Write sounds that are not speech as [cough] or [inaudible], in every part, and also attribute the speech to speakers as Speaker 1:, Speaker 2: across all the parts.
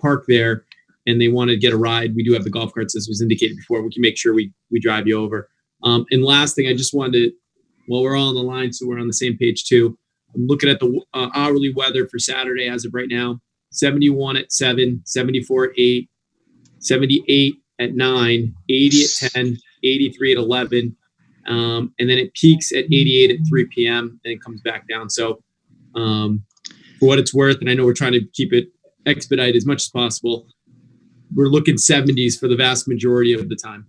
Speaker 1: park there and they want to get a ride, we do have the golf carts, as was indicated before. We can make sure we, we drive you over. Um, and last thing, I just wanted to, well, we're all on the line, so we're on the same page too. I'm looking at the uh, hourly weather for Saturday as of right now 71 at 7, 74 at 8, 78 at 9, 80 at 10, 83 at 11. Um, and then it peaks at 88 at 3 p.m. and it comes back down. So, um, for what it's worth, and I know we're trying to keep it expedite as much as possible. We're looking 70s for the vast majority of the time.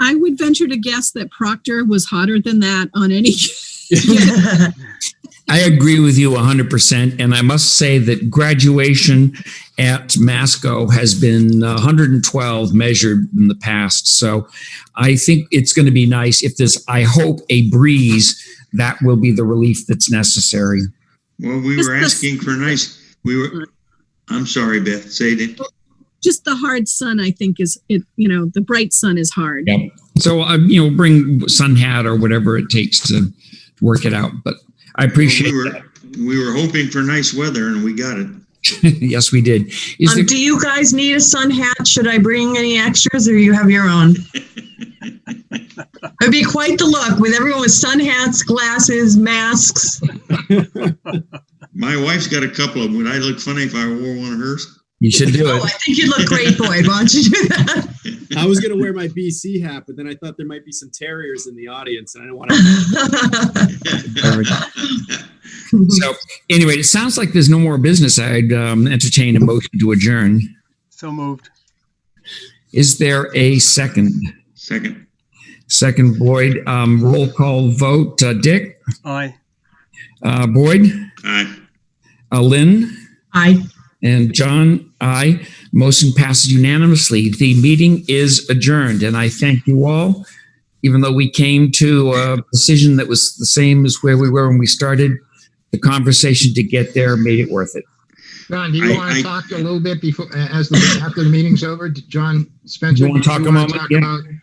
Speaker 2: I would venture to guess that Proctor was hotter than that on any. [laughs]
Speaker 3: I agree with you 100%. And I must say that graduation at Masco has been 112 measured in the past. So I think it's going to be nice if there's, I hope, a breeze that will be the relief that's necessary.
Speaker 4: Well, we
Speaker 2: Just
Speaker 4: were
Speaker 2: the-
Speaker 4: asking for nice, we were, I'm sorry, Beth, say it.
Speaker 2: Just the hard sun, I think, is it. You know, the bright sun is hard.
Speaker 3: Yeah. So, uh, you know, bring sun hat or whatever it takes to work it out. But I appreciate
Speaker 4: We were- We were hoping for nice weather and we got it.
Speaker 3: [laughs] yes, we did. Is
Speaker 5: Um,
Speaker 3: there,
Speaker 5: do you guys need a sun hat? Should I bring any extras or you have your own? It'd be quite the look with everyone with sun hats, glasses, masks.
Speaker 4: My wife's got a couple of them. Would I look funny if I wore one of hers?
Speaker 3: you should do
Speaker 5: Oh, I
Speaker 3: it.
Speaker 5: think you'd look great, Boyd. Why don't you do that? [laughs]
Speaker 1: I was going to wear my BC hat, but then I thought there might be some terriers in the audience, and I don't want to.
Speaker 5: I
Speaker 3: So, anyway, it sounds like there's no more business. I'd um, entertain a motion to adjourn.
Speaker 6: So moved.
Speaker 3: Is there a second?
Speaker 4: [laughs] Second,
Speaker 3: Second, Boyd. Um, roll call vote. Uh, Dick,
Speaker 6: Aye.
Speaker 3: uh, Boyd,
Speaker 4: aye.
Speaker 3: uh, Lynn, and John. Aye. Motion passes unanimously. The meeting is adjourned, and I thank you all. Even though we came to a decision that was the same as where we were when we started, the conversation to get there made it worth it.
Speaker 7: John, do
Speaker 4: I-
Speaker 7: you want
Speaker 4: I-
Speaker 7: to talk a little bit before, as the, after the meeting's over? John Spencer?
Speaker 3: You wanna
Speaker 7: do
Speaker 3: talk a
Speaker 7: wanna
Speaker 3: moment?
Speaker 7: talk
Speaker 3: Yeah.
Speaker 7: about-